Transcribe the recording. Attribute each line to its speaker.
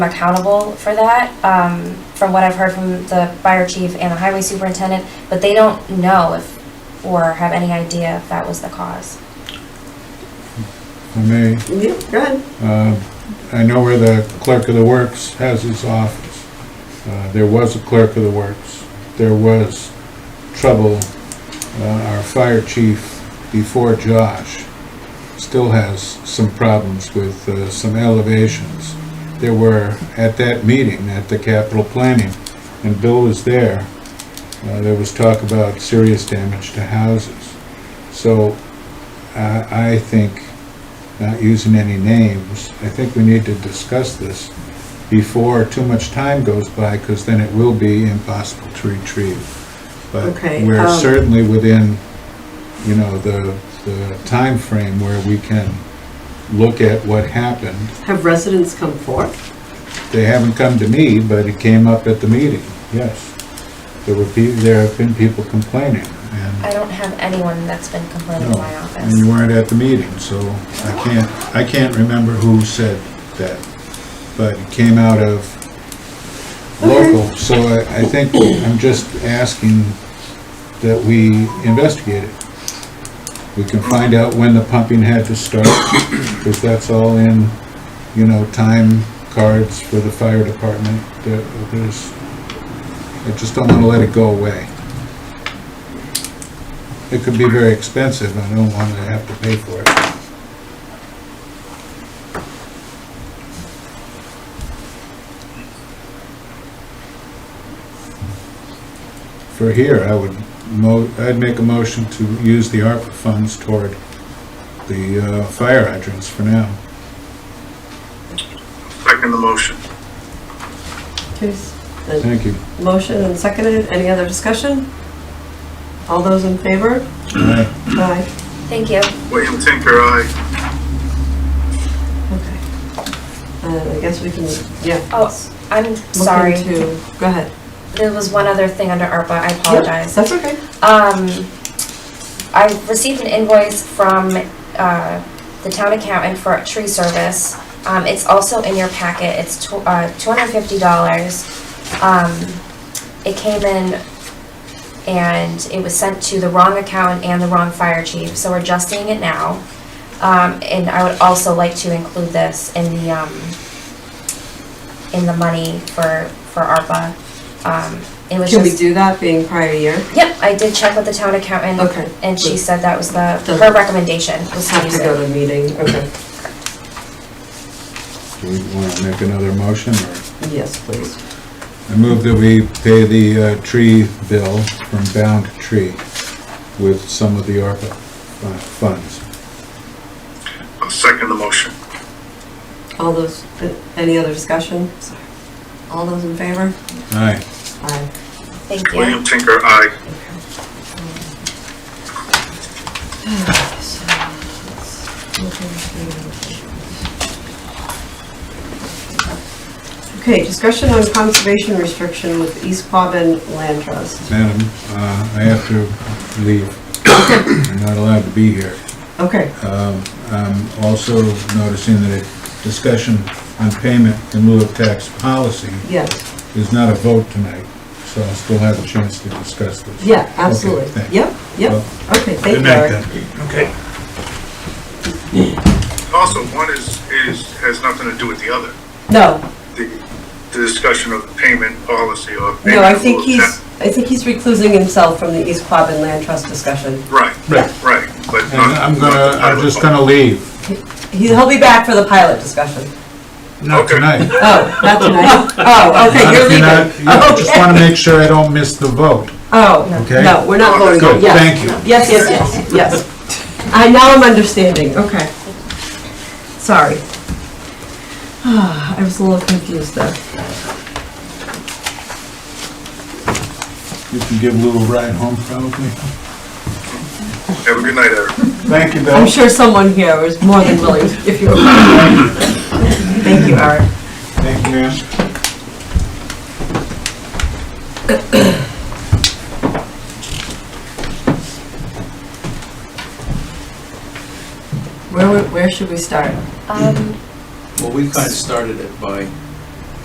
Speaker 1: accountable for that, um, from what I've heard from the fire chief and the highway superintendent, but they don't know if, or have any idea if that was the cause.
Speaker 2: For me,
Speaker 3: Yeah, go ahead.
Speaker 2: uh, I know where the clerk of the works has his office. Uh, There was a clerk of the works. There was trouble. Uh, Our fire chief before Josh still has some problems with uh, some elevations. There were, at that meeting, at the capital planning, and Bill was there, uh, there was talk about serious damage to houses. So I I think not using any names, I think we need to discuss this before too much time goes by, because then it will be impossible to retrieve. But
Speaker 3: Okay,
Speaker 2: we're
Speaker 3: um,
Speaker 2: certainly within, you know, the, the timeframe where we can look at what happened.
Speaker 3: Have residents come forth?
Speaker 2: They haven't come to me, but it came up at the meeting, yes. There were people, there have been people complaining, and,
Speaker 1: I don't have anyone that's been complaining in my
Speaker 2: no, and you
Speaker 1: office.
Speaker 2: weren't at the meeting, so I can't, I can't remember who said that. But it came out of local, so I, I think I'm just asking that we investigate it. We can find out when the pumping had to start, because that's all in, you know, time cards for the fire department. There- There's, I just don't want to let it go away. It could be very expensive, I don't want to have to pay for it. For here, I would, mo- I'd make a motion to use the ARPA funds toward the uh, fire hydrants for now.
Speaker 4: Second the motion.
Speaker 3: Please. The
Speaker 2: Thank you.
Speaker 3: motion and seconded, any other discussion? All those in favor?
Speaker 2: Aye.
Speaker 3: Aye.
Speaker 1: Thank you.
Speaker 4: William Tinker, aye.
Speaker 3: Okay. Uh, I guess we can, yeah.
Speaker 1: Oh, I'm
Speaker 3: look
Speaker 1: sorry.
Speaker 3: into- Go ahead.
Speaker 1: There was one other thing under ARPA, I apologize.
Speaker 3: That's okay.
Speaker 1: Um, I received an invoice from, uh, the town accountant for a tree service. Um, it's also in your packet, it's tw- uh, two hundred and fifty dollars. Um, it came in and it was sent to the wrong account and the wrong fire chief, so we're adjusting it now. Um, and I would also like to include this in the, um, in the money for, for ARPA. Um, it was
Speaker 3: Can we
Speaker 1: just-
Speaker 3: do that being prior year?
Speaker 1: Yep, I did check with the town accountant.
Speaker 3: Okay.
Speaker 1: And she
Speaker 3: Good.
Speaker 1: said that was the,
Speaker 3: Doesn't-
Speaker 1: her recommendation was
Speaker 3: Just
Speaker 1: to
Speaker 3: have
Speaker 1: use
Speaker 3: to go
Speaker 1: it.
Speaker 3: to the meeting, okay.
Speaker 2: Do we want to make another motion? or-
Speaker 3: Yes, please.
Speaker 2: I move that we pay the uh, tree bill from Bound Tree with some of the ARPA fu- funds.
Speaker 4: I'll second the motion.
Speaker 3: All those, uh, any other discussion? Sorry. All those in favor?
Speaker 2: Aye.
Speaker 3: Aye.
Speaker 1: Thank you.
Speaker 4: William Tinker, aye.
Speaker 3: So, let's look into- Okay, discussion on conservation restriction with East Quabbin Land Trust.
Speaker 2: Madam, uh, I have to leave. I'm not allowed to be here.
Speaker 3: Okay,
Speaker 2: Um, I'm also noticing that a discussion on payment in lieu of tax policy
Speaker 3: yes,
Speaker 2: is not a vote tonight, so I'll still have a chance to discuss this.
Speaker 3: yeah, absolutely.
Speaker 2: Okay, thank you.
Speaker 3: Yep, yep,
Speaker 2: Well,
Speaker 3: okay, thank
Speaker 2: Good
Speaker 3: you,
Speaker 2: night,
Speaker 3: Eric.
Speaker 2: then.
Speaker 4: Okay. Also, one is, is, has nothing to do with the other.
Speaker 3: No,
Speaker 4: The, the discussion of the payment policy or.
Speaker 3: no, I
Speaker 4: payment
Speaker 3: think
Speaker 4: rules.
Speaker 3: he's, I think he's reclusing himself from the East Quabbin Land Trust discussion.
Speaker 4: Right,
Speaker 2: Right.
Speaker 4: right, but.
Speaker 2: And
Speaker 4: not-
Speaker 2: I'm gonna, I'm just gonna leave.
Speaker 3: He- He'll be back for the pilot discussion.
Speaker 2: Not
Speaker 4: Okay.
Speaker 2: tonight.
Speaker 3: Oh, not tonight? Oh, okay, you're
Speaker 2: If
Speaker 3: leaving.
Speaker 2: not- yeah, I just
Speaker 3: Okay.
Speaker 2: wanna make sure I don't miss the vote.
Speaker 3: Oh,
Speaker 2: Okay.
Speaker 3: no, we're not voting,
Speaker 2: Good,
Speaker 3: yes.
Speaker 2: thank you.
Speaker 3: Yes, yes, yes, yes. I, now I'm understanding, okay. Sorry. I was a little confused there.
Speaker 2: You can give a little ride home probably.
Speaker 4: Have a good night, Eric.
Speaker 2: Thank you,
Speaker 3: I'm
Speaker 2: Bill.
Speaker 3: sure someone here was more than willing, if you were. Thank you, Eric.
Speaker 2: Thank you, ma'am.
Speaker 3: Where, we- where should we start?
Speaker 1: Um, Um,
Speaker 5: Well, we kind of started it by